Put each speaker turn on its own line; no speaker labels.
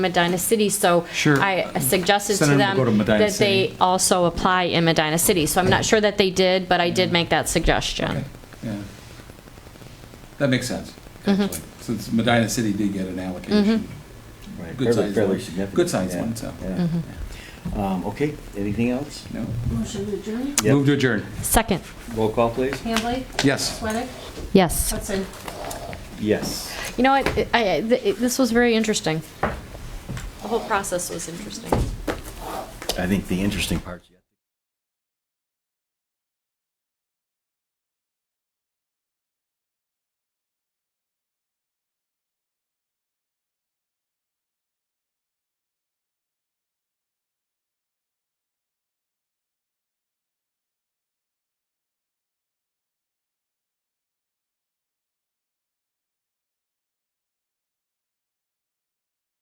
Medina City, so
Sure.
I suggested to
Send them to
them
go to Medina
that they
City.
also apply in Medina City. So I'm not sure that they did, but I did make that suggestion.
Mm-hmm. Okay, Yeah. That makes sense,
Mm-hmm.
actually, since Medina City did get an allocation.
Right,
Good
fairly-
size
fairly
one.
significant,
Good size
yeah,
one, so.
yeah.
Mm-hmm.
Um, okay, anything else?
No?
Motion to adjourn.
Yep.
Move to adjourn.
Second,
Roll call, please?
Hambley?
Yes.
Sweattick?
yes.
Hudson?
Yes.
You know what, I, I- th- this was very interesting. The whole process was interesting.
I think the interesting part's yet.